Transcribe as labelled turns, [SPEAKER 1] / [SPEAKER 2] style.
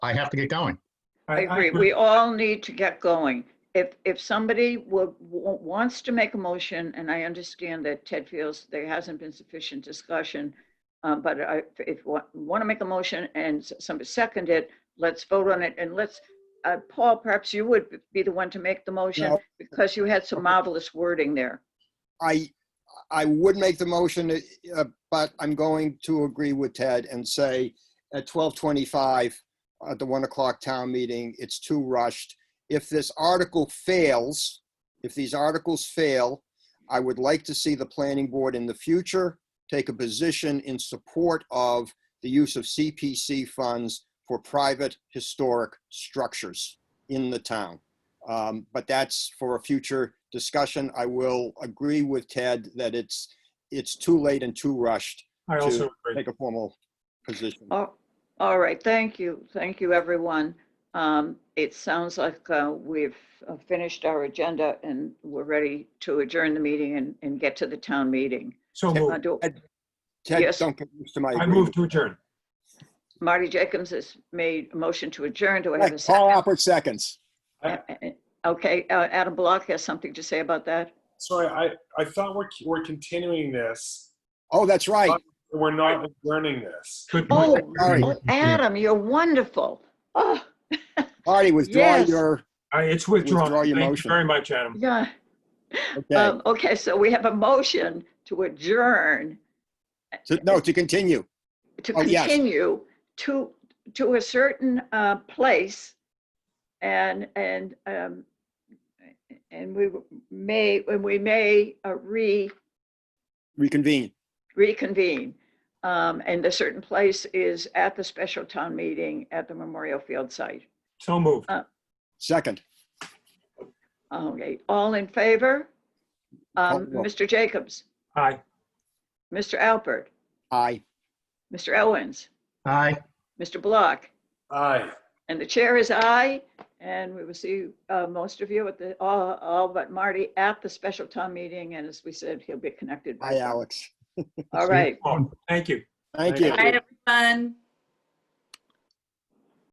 [SPEAKER 1] I have to get going.
[SPEAKER 2] I agree. We all need to get going. If, if somebody would, wa- wants to make a motion, and I understand that Ted feels there hasn't been sufficient discussion, uh, but I, if you want to make a motion and s- somebody second it, let's vote on it and let's, uh, Paul, perhaps you would be the one to make the motion
[SPEAKER 3] No.
[SPEAKER 2] because you had some marvelous wording there.
[SPEAKER 3] I, I would make the motion, uh, but I'm going to agree with Ted and say at 12:25, at the 1 o'clock town meeting, it's too rushed. If this article fails, if these articles fail, I would like to see the planning board in the future take a position in support of the use of CPC funds for private historic structures in the town. Um, But that's for a future discussion. I will agree with Ted that it's, it's too late and too rushed
[SPEAKER 4] I
[SPEAKER 3] to
[SPEAKER 4] also agree.
[SPEAKER 3] take a formal position.
[SPEAKER 2] Oh, all right, thank you, thank you, everyone. Um, It sounds like uh, we've uh, finished our agenda and we're ready to adjourn the meeting and, and get to the town meeting.
[SPEAKER 4] So
[SPEAKER 2] Uh,
[SPEAKER 4] moved.
[SPEAKER 2] do-
[SPEAKER 3] Oh, Ted,
[SPEAKER 2] yes.
[SPEAKER 3] don't get used to my
[SPEAKER 4] I
[SPEAKER 3] agreement.
[SPEAKER 4] move to adjourn.
[SPEAKER 2] Marty Jacobs has made a motion to adjourn, do I have a
[SPEAKER 3] Right,
[SPEAKER 2] second?
[SPEAKER 3] Paul Alpert seconds.
[SPEAKER 2] Okay, uh, Adam Block has something to say about that?
[SPEAKER 5] Sorry, I, I thought we're, we're continuing this.
[SPEAKER 3] Oh, that's right.
[SPEAKER 5] We're not learning this.
[SPEAKER 4] Good
[SPEAKER 2] Oh,
[SPEAKER 4] point.
[SPEAKER 3] Sorry.
[SPEAKER 2] oh, Adam, you're wonderful. Oh,
[SPEAKER 3] Marty, withdraw
[SPEAKER 2] Yes.
[SPEAKER 3] your,
[SPEAKER 2] Oh.
[SPEAKER 4] I- It's withdrawn.
[SPEAKER 3] Withdraw your
[SPEAKER 4] Thank you
[SPEAKER 3] motion.
[SPEAKER 4] very much, Adam.
[SPEAKER 2] yeah.
[SPEAKER 3] okay,
[SPEAKER 2] Um, Okay, so we have a motion to adjourn.
[SPEAKER 3] To- no, to continue.
[SPEAKER 2] to
[SPEAKER 3] Oh, yes.
[SPEAKER 2] continue to, to a certain uh, place. And, and, um, and we may, and we may uh, re,
[SPEAKER 3] Reconvene.
[SPEAKER 2] reconvene. Um, And the certain place is at the special town meeting at the Memorial Field site.
[SPEAKER 4] So moved.
[SPEAKER 3] Second.
[SPEAKER 2] Okay, all in favor? Um,
[SPEAKER 3] Oh, no.
[SPEAKER 2] Mr. Jacobs,
[SPEAKER 4] Aye.
[SPEAKER 2] Mr. Alpert,
[SPEAKER 3] Aye.
[SPEAKER 2] Mr. Owens,
[SPEAKER 1] Aye.
[SPEAKER 2] Mr. Block,
[SPEAKER 5] Aye.
[SPEAKER 2] And the chair is aye, and we will see uh, most of you at the, all all but Marty at the special town meeting. And as we said, he'll be connected. by
[SPEAKER 3] Aye,
[SPEAKER 2] phone.
[SPEAKER 3] Alex.
[SPEAKER 2] All right.
[SPEAKER 4] Oh, Thank you.
[SPEAKER 3] Thank you.
[SPEAKER 6] All right, everyone.